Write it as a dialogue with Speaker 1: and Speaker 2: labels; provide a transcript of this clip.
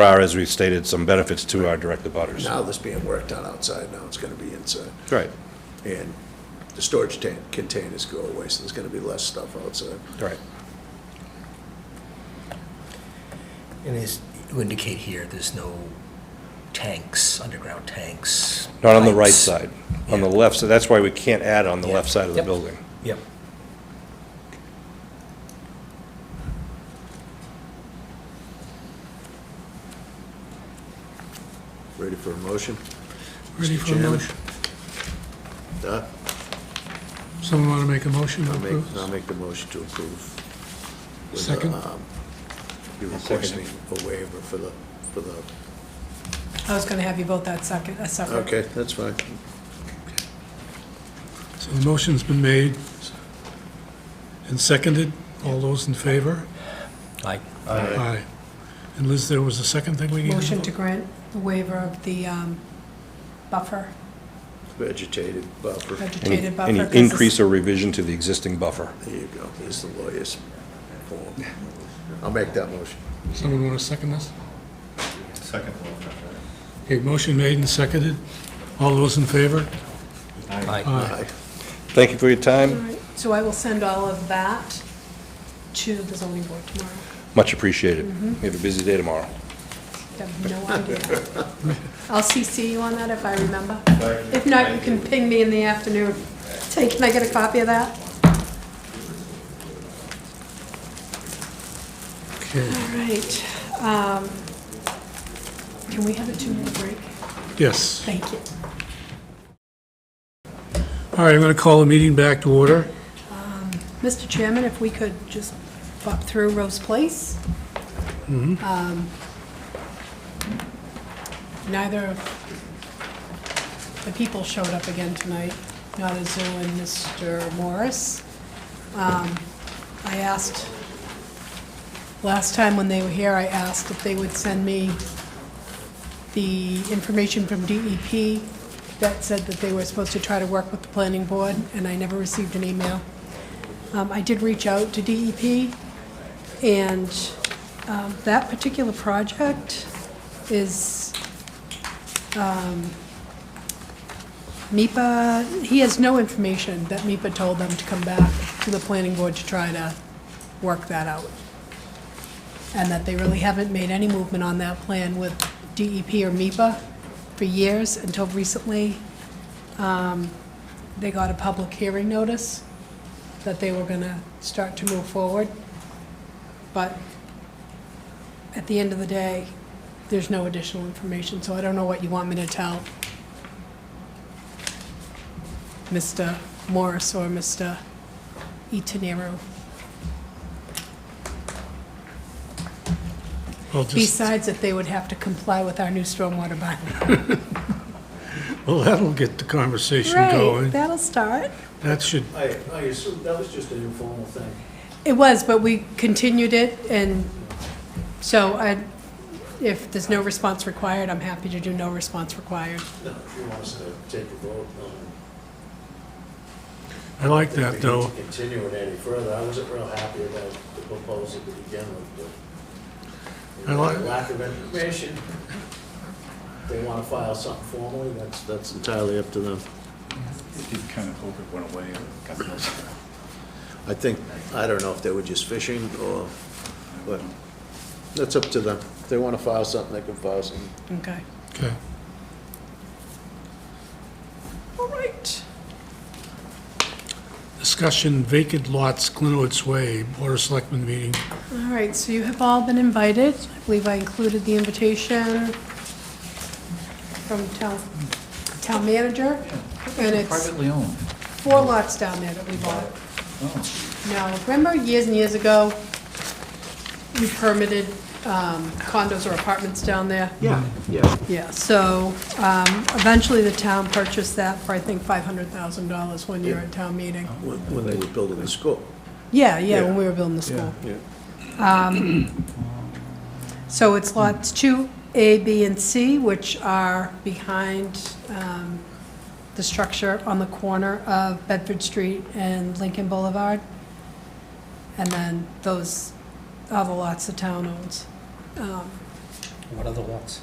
Speaker 1: There are, as we've stated, some benefits to our direct abutters.
Speaker 2: Now this being worked on outside, now it's gonna be inside.
Speaker 1: Right,
Speaker 2: And the storage tank, containers go away, so there's gonna be less stuff outside.
Speaker 1: right.
Speaker 3: And as you indicate here, there's no tanks, underground tanks.
Speaker 1: Not on the right
Speaker 3: pipes.
Speaker 1: side, on the
Speaker 3: Yeah.
Speaker 1: left, so that's why we can't add on the
Speaker 3: Yeah.
Speaker 1: left side of the
Speaker 3: Yep.
Speaker 1: building.
Speaker 3: Yep.
Speaker 2: Ready for a motion?
Speaker 4: Ready
Speaker 2: Mr.
Speaker 4: for a
Speaker 2: Chairman?
Speaker 4: motion?
Speaker 2: Uh,
Speaker 4: Someone want to make a motion to
Speaker 2: I'll make, I'll
Speaker 4: approve?
Speaker 2: make the motion to approve. with,
Speaker 4: Second.
Speaker 2: um, You're
Speaker 1: I'll second
Speaker 2: requesting
Speaker 1: it.
Speaker 2: a waiver for the, for the,
Speaker 5: I was gonna have you vote that second, a separate.
Speaker 2: okay, that's fine.
Speaker 4: So the motion's been made and seconded. All those in favor?
Speaker 3: Aye.
Speaker 4: Aye. And Liz, there was a second thing we needed?
Speaker 5: Motion to grant the waiver of the um, buffer,
Speaker 2: Vegetated buffer,
Speaker 1: Any-
Speaker 5: vegetated buffer.
Speaker 1: Any
Speaker 5: 'cause it's-
Speaker 1: increase or revision to the existing buffer.
Speaker 2: there you go, there's the lawyer's form. I'll make that motion.
Speaker 4: Someone want to second this? Second. Okay, motion made and seconded. All those in favor?
Speaker 3: Aye.
Speaker 4: Aye.
Speaker 1: Thank you for your
Speaker 5: All
Speaker 1: time,
Speaker 5: right, So I will send all of that to the zoning board tomorrow.
Speaker 1: much appreciated.
Speaker 3: Mm-hmm.
Speaker 1: We have a busy day tomorrow.
Speaker 5: I have no idea. I'll CC you on that if I remember. If not, you can ping me in the afternoon. Say, can I get a copy of that?
Speaker 4: Okay,
Speaker 5: All right. um, Can we have a two-minute break?
Speaker 4: yes.
Speaker 5: Thank you.
Speaker 4: All right, I'm going to call the meeting back to order.
Speaker 5: Mr. Chairman, if we could just bop through Rose Place. Um, Neither of the people showed up again tonight, not Azu and Mr. Morris. Um, I asked, last time when they were here, I asked if they would send me the information from DEP that said that they were supposed to try to work with the planning board, and I never received an email. Um, I did reach out to DEP, and um, that particular project is um, MIPA, he has no information that MIPA told them to come back to the planning board to try to work that out. And that they really haven't made any movement on that plan with DEP or MIPA for years until recently. um, They got a public hearing notice that they were going to start to move forward. But at the end of the day, there's no additional information, so I don't know what you want me to tell Mr. Morris or Mr. Itanero.
Speaker 4: I'll just,
Speaker 5: Besides that they would have to comply with our new stormwater bylaw.
Speaker 4: well, that'll get the conversation
Speaker 5: Right,
Speaker 4: going.
Speaker 5: that'll start.
Speaker 4: That should,
Speaker 6: I, I assume that was just an informal thing.
Speaker 5: It was, but we continued it, and so I, if there's no response required, I'm happy to do no response required.
Speaker 6: No, if you want us to take a vote on.
Speaker 4: I like
Speaker 6: if
Speaker 4: that,
Speaker 6: we need
Speaker 4: though.
Speaker 6: to Continue it any further. I wasn't real happy about the proposal to begin with, but.
Speaker 4: I like-
Speaker 6: the Lack of information. If They want to file something formally, that's, that's entirely up to them.
Speaker 7: It did kind of hope it went away or got closer.
Speaker 2: I think, I don't know if they were just fishing or, but that's up to them. If they want to file something, they can file something.
Speaker 5: Okay.
Speaker 4: Okay.
Speaker 5: All right.
Speaker 4: Discussion vacant lots, Glenwood's Way, Board of Selectmen meeting.
Speaker 5: All right, so you have all been invited. I believe I included the invitation from town, town manager. And it's
Speaker 7: Privately owned.
Speaker 5: four lots down there that we bought.
Speaker 7: Oh,
Speaker 5: Now, remember years and years ago, we permitted um, condos or apartments down there?
Speaker 6: Yeah, yeah.
Speaker 5: Yeah, so um, eventually the town purchased that for, I think, $500,000 one year at town meeting.
Speaker 2: When when they were building the school.
Speaker 5: Yeah, yeah,
Speaker 2: Yeah.
Speaker 5: when we were building the school. Um,
Speaker 2: Yeah.
Speaker 5: So it's lots two, A, B, and C, which are behind um, the structure on the corner of Bedford Street and Lincoln Boulevard. And then those are the lots the town owns. Um,
Speaker 3: What other lots?